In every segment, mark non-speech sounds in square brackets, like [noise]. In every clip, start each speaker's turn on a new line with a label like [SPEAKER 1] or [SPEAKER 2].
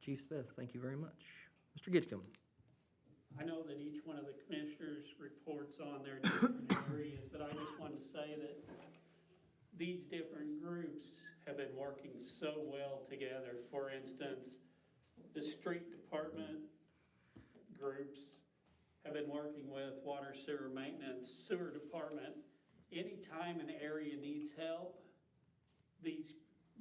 [SPEAKER 1] Chief Smith, thank you very much. Mr. Gitcom.
[SPEAKER 2] I know that each one of the commissioners reports on their different areas, but I just wanted to say that these different groups have been working so well together. For instance, the street department groups have been working with water sewer maintenance, sewer department. Anytime an area needs help, these,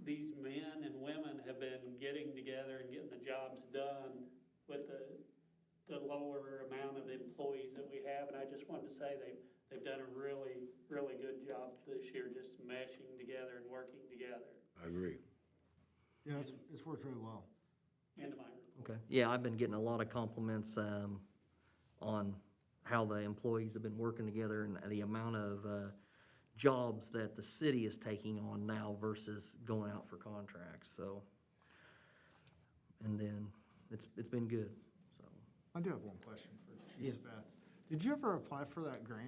[SPEAKER 2] these men and women have been getting together and getting the jobs done with the, the lower amount of employees that we have, and I just wanted to say they've, they've done a really, really good job this year, just meshing together and working together,
[SPEAKER 3] I agree.
[SPEAKER 4] Yeah, it's, it's worked really well.
[SPEAKER 2] end of my report.
[SPEAKER 1] Okay. Yeah, I've been getting a lot of compliments um, on how the employees have been working together and the amount of uh, jobs that the city is taking on now versus going out for contracts, so. And then, it's, it's been good, so.
[SPEAKER 4] I do have one question for Chief
[SPEAKER 1] Yeah.
[SPEAKER 4] Beth. Did you ever apply for that grant,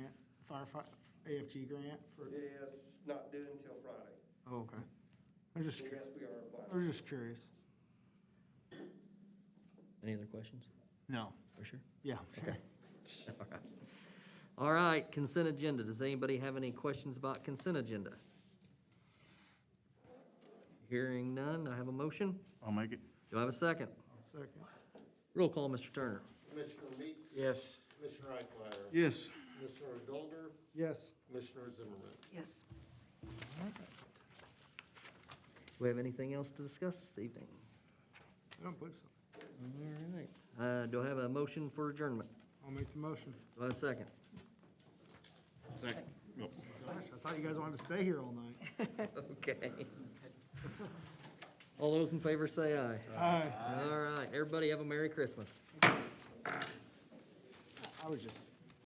[SPEAKER 4] firefighter, AFG grant for?
[SPEAKER 5] It's not due until Friday.
[SPEAKER 4] Oh, okay. I was just,
[SPEAKER 5] So
[SPEAKER 4] cur-
[SPEAKER 5] yes, we are
[SPEAKER 4] I was
[SPEAKER 5] applying.
[SPEAKER 4] just curious.
[SPEAKER 1] Any other questions?
[SPEAKER 4] No,
[SPEAKER 1] For sure.
[SPEAKER 4] yeah, [laughs] sure.
[SPEAKER 1] All right, consent agenda. Does anybody have any questions about consent agenda? Hearing none, I have a motion.
[SPEAKER 6] I'll make it.
[SPEAKER 1] Do I have a second?
[SPEAKER 4] Second.
[SPEAKER 1] Roll call, Mr. Turner.
[SPEAKER 7] Commissioner Meeks?
[SPEAKER 3] Yes.
[SPEAKER 7] Commissioner Eichmeyer?
[SPEAKER 6] Yes.
[SPEAKER 7] Commissioner Dolder?
[SPEAKER 4] Yes.
[SPEAKER 7] Commissioner Zimmerman?
[SPEAKER 8] Yes.
[SPEAKER 1] Do we have anything else to discuss this evening?
[SPEAKER 4] I don't believe so.
[SPEAKER 1] All right. Uh, do I have a motion for adjournment?
[SPEAKER 4] I'll make the motion.
[SPEAKER 1] Do I have a second?
[SPEAKER 6] Second. Yep.
[SPEAKER 4] Gosh, I thought you guys wanted to stay here all night.
[SPEAKER 1] [laughs] Okay. All those in favor say aye.
[SPEAKER 4] Aye.
[SPEAKER 1] Uh, All right, everybody have a Merry Christmas.
[SPEAKER 4] I was just.